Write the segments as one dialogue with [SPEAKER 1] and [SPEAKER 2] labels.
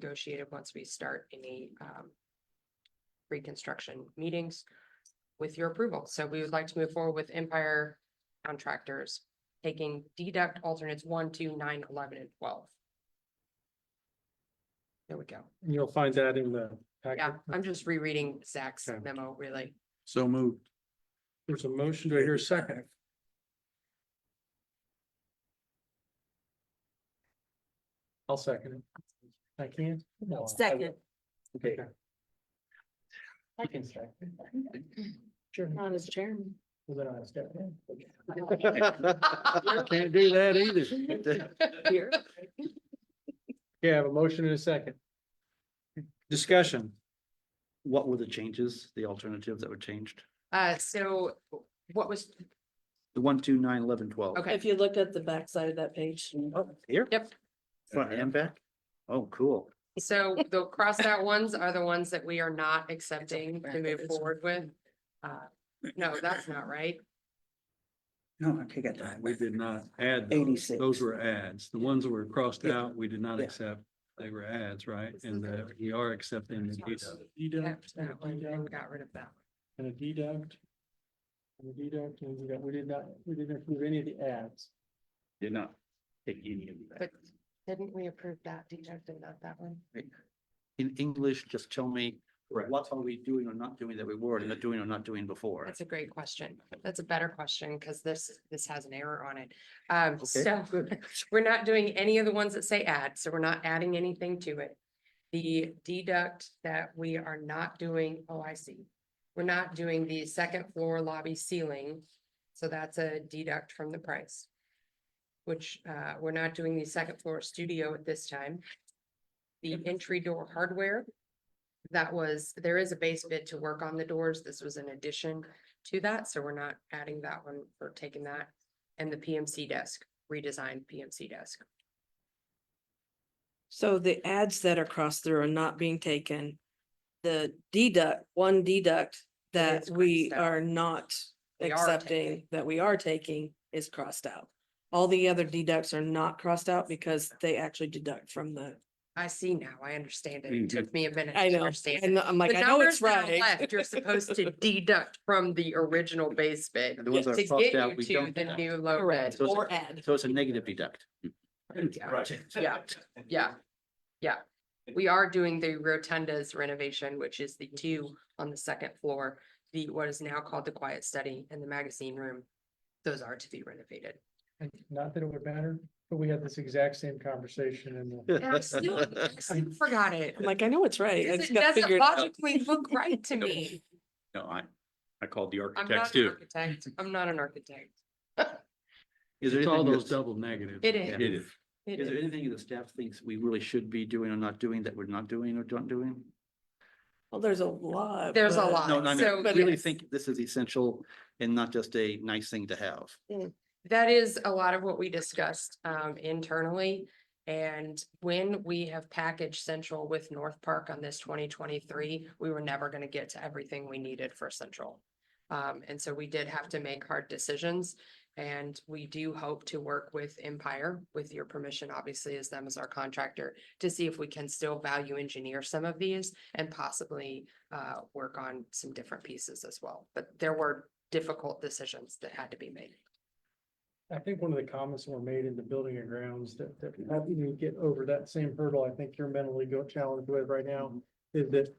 [SPEAKER 1] negotiated once we start any um. Reconstruction meetings with your approval. So we would like to move forward with Empire Contractors. Taking deduct alternates one, two, nine, eleven, and twelve. There we go.
[SPEAKER 2] And You'll find that in the. packet.
[SPEAKER 1] Yeah, I'm just rereading Zach's
[SPEAKER 2] Okay.
[SPEAKER 1] memo, really.
[SPEAKER 3] So moved.
[SPEAKER 2] There's a motion. Do I hear a second? I'll second it. I can? not
[SPEAKER 4] Second.
[SPEAKER 2] Okay.
[SPEAKER 4] I can
[SPEAKER 2] second.
[SPEAKER 4] Not as chairman.
[SPEAKER 3] I can't do that either.
[SPEAKER 4] Here.
[SPEAKER 2] Okay, I have a motion and a second.
[SPEAKER 3] Discussion. What were the changes, the alternatives that were changed?
[SPEAKER 1] Uh, so what was,
[SPEAKER 3] The one, two, nine, eleven, twelve. Oh,
[SPEAKER 1] Okay.
[SPEAKER 4] If you look at the backside of that page.
[SPEAKER 3] Here?
[SPEAKER 1] Yep.
[SPEAKER 3] Front and back? Oh, cool.
[SPEAKER 1] so the crossed out ones are the ones that we are not accepting to move forward with? Uh, No, that's not right.
[SPEAKER 5] No, I take it back.
[SPEAKER 6] Uh, We did not add those.
[SPEAKER 5] 86.
[SPEAKER 6] Those were ads. The ones that were crossed
[SPEAKER 5] Yeah.
[SPEAKER 6] out, we did not
[SPEAKER 5] Yeah.
[SPEAKER 6] accept. They were ads, right?
[SPEAKER 1] Let's
[SPEAKER 6] And
[SPEAKER 1] look at
[SPEAKER 6] uh, we are accepting. the
[SPEAKER 1] Let's
[SPEAKER 6] deduct.
[SPEAKER 1] That
[SPEAKER 2] Deduct, and a
[SPEAKER 1] one, then we
[SPEAKER 2] deduct,
[SPEAKER 1] got rid of that.
[SPEAKER 2] and a deduct. And a deduct, and we got- we did not, we didn't approve any of the ads.
[SPEAKER 3] Did not take any of that.
[SPEAKER 1] But- Didn't we approve that deduct and not that one?
[SPEAKER 3] In English, just tell me,
[SPEAKER 2] Correct.
[SPEAKER 3] what are we doing or not doing that we were not doing or not doing before?
[SPEAKER 1] That's a great question. That's a better question because this, this has an error on it. Um,
[SPEAKER 3] Okay,
[SPEAKER 1] so we're not doing any of the ones that say add, so we're not adding anything to it. The deduct that we are not doing, oh, I see. We're not doing the second floor lobby ceiling, so that's a deduct from the price. Which, uh, we're not doing the second floor studio at this time. The entry door hardware. That was, there is a base bid to work on the doors. This was an addition to that, so we're not adding that one or taking that. And the PMC desk, redesigned PMC desk.
[SPEAKER 4] So the ads that are crossed through are not being taken. The deduct, one deduct that
[SPEAKER 1] is
[SPEAKER 4] we
[SPEAKER 1] crossed out.
[SPEAKER 4] are not
[SPEAKER 1] We are
[SPEAKER 4] accepting,
[SPEAKER 1] taking.
[SPEAKER 4] that we are taking is crossed out. All the other deducts are not crossed out because they actually deduct from the,
[SPEAKER 1] I see now, I understand it. It
[SPEAKER 3] Mhm.
[SPEAKER 1] took me a minute
[SPEAKER 4] I
[SPEAKER 1] to
[SPEAKER 4] know,
[SPEAKER 1] understand. it.
[SPEAKER 4] and I'm
[SPEAKER 1] The
[SPEAKER 4] like, I know
[SPEAKER 1] numbers
[SPEAKER 4] it's
[SPEAKER 1] that are
[SPEAKER 4] right.
[SPEAKER 1] left, you're supposed to deduct from the original base bid
[SPEAKER 3] The ones
[SPEAKER 1] to
[SPEAKER 3] that are
[SPEAKER 1] get
[SPEAKER 3] crossed out,
[SPEAKER 1] you
[SPEAKER 3] we
[SPEAKER 1] to
[SPEAKER 3] don't.
[SPEAKER 1] the
[SPEAKER 3] add.
[SPEAKER 1] new low bid.
[SPEAKER 4] Correct,
[SPEAKER 3] So it's a-
[SPEAKER 4] or add.
[SPEAKER 3] So it's a negative deduct.
[SPEAKER 1] Yeah. Yeah, yeah, yeah. We are doing the rotundas renovation, which is the two on the second floor, the, what is now called the quiet study and the magazine room. Those are to be renovated.
[SPEAKER 2] And not that it would matter, but we had this exact same conversation in the.
[SPEAKER 1] And I still I still forgot it.
[SPEAKER 4] I'm like, I know it's right. I
[SPEAKER 1] Because
[SPEAKER 4] just
[SPEAKER 1] It
[SPEAKER 4] got
[SPEAKER 1] doesn't
[SPEAKER 4] figured out.
[SPEAKER 1] logically look right to me.
[SPEAKER 3] No, I, I called the
[SPEAKER 1] I'm not
[SPEAKER 3] architects
[SPEAKER 1] an
[SPEAKER 3] too.
[SPEAKER 1] architect. I'm not an architect.
[SPEAKER 3] Is there
[SPEAKER 6] It's all
[SPEAKER 3] anything
[SPEAKER 6] those
[SPEAKER 3] that's-
[SPEAKER 6] double negatives.
[SPEAKER 1] It is.
[SPEAKER 3] It is.
[SPEAKER 1] It
[SPEAKER 3] Is there
[SPEAKER 1] is.
[SPEAKER 3] anything that staff thinks we really should be doing or not doing that we're not doing or not doing?
[SPEAKER 4] Well, there's a lot.
[SPEAKER 1] There's a
[SPEAKER 4] but-
[SPEAKER 1] lot.
[SPEAKER 3] No, no, I
[SPEAKER 1] So-
[SPEAKER 3] mean,
[SPEAKER 1] But
[SPEAKER 3] really
[SPEAKER 1] yes.
[SPEAKER 3] think this is essential and not just a nice thing to have.
[SPEAKER 1] That is a lot of what we discussed um internally. And when we have packaged Central with North Park on this twenty twenty-three, we were never gonna get to everything we needed for Central. Um, and so we did have to make hard decisions. And we do hope to work with Empire, with your permission, obviously, as them as our contractor, to see if we can still value engineer some of these and possibly uh work on some different pieces as well. But there were difficult decisions that had to be made.
[SPEAKER 2] I think one of the comments that were made in the building and grounds that, that helping you get over that same hurdle, I think you're mentally go challenged with right now, is that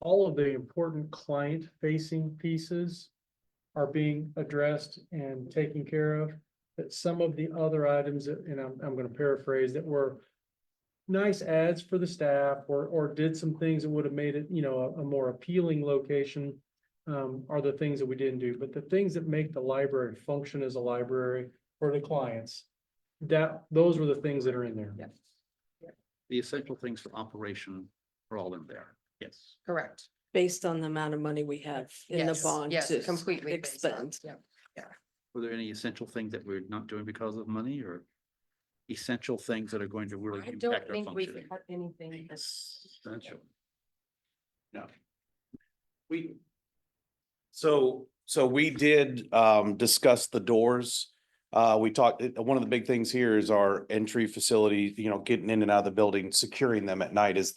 [SPEAKER 2] all of the important client facing pieces are being addressed and taken care of, that some of the other items, that- and I'm, I'm gonna paraphrase, that were nice ads for the staff, or, or did some things that would have made it, you know, a, a more appealing location, um, are the things that we didn't do, but the things that make the library function as a library for the clients, that, those were the things that are in there.
[SPEAKER 1] Yeah.
[SPEAKER 3] The essential things for operation are all in there. Yes.
[SPEAKER 1] Correct.
[SPEAKER 4] Based on the amount of money we have in the
[SPEAKER 1] Yes,
[SPEAKER 4] bond
[SPEAKER 1] yes,
[SPEAKER 4] to
[SPEAKER 1] Completely. based on-
[SPEAKER 4] expend.
[SPEAKER 1] yep.
[SPEAKER 3] Were there any essential things that we're not doing because of money or essential things that are going to really
[SPEAKER 1] I don't
[SPEAKER 3] impact our
[SPEAKER 1] think we
[SPEAKER 3] functioning?
[SPEAKER 1] cut anything. that's-
[SPEAKER 3] Essential. No. We,
[SPEAKER 7] So, so we did um discuss the doors. Uh, we talked, uh, one of the big things here is our entry facility, you know, getting in and out of the building, securing them at night is